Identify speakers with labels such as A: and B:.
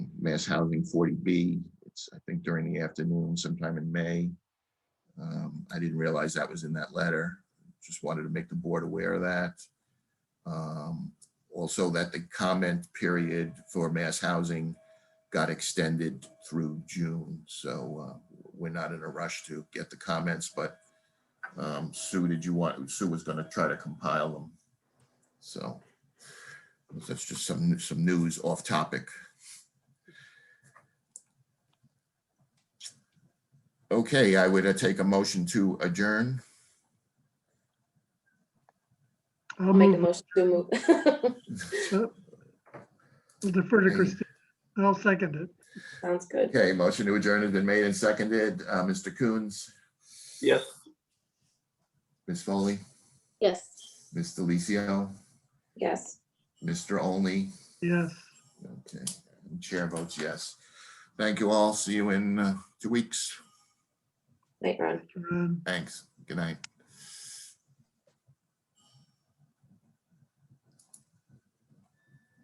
A: mass housing forty B. It's, I think during the afternoon sometime in May. Um, I didn't realize that was in that letter. Just wanted to make the board aware of that. Um, Also that the comment period for mass housing got extended through June. So uh, we're not in a rush to get the comments, but um, Sue, did you want, Sue was going to try to compile them. So that's just some, some news off topic. Okay, I would uh, take a motion to adjourn.
B: I'll
C: I'll make a
B: move,
C: motion to move.
B: uh, I'll defer to
A: Hey.
B: Christine. I'll second it.
C: Sounds good.
A: Okay, motion to adjourn has been made and seconded. Uh, Mr. Coons,
D: Yes.
A: Ms. Foley,
C: Yes.
A: Ms. Delicio,
C: Yes.
A: Mr. Only.
B: Yes.
A: Okay, and chair votes yes. Thank you all. See you in uh, two weeks.
C: Night, Ron.
B: Ron.
A: Thanks. Good night.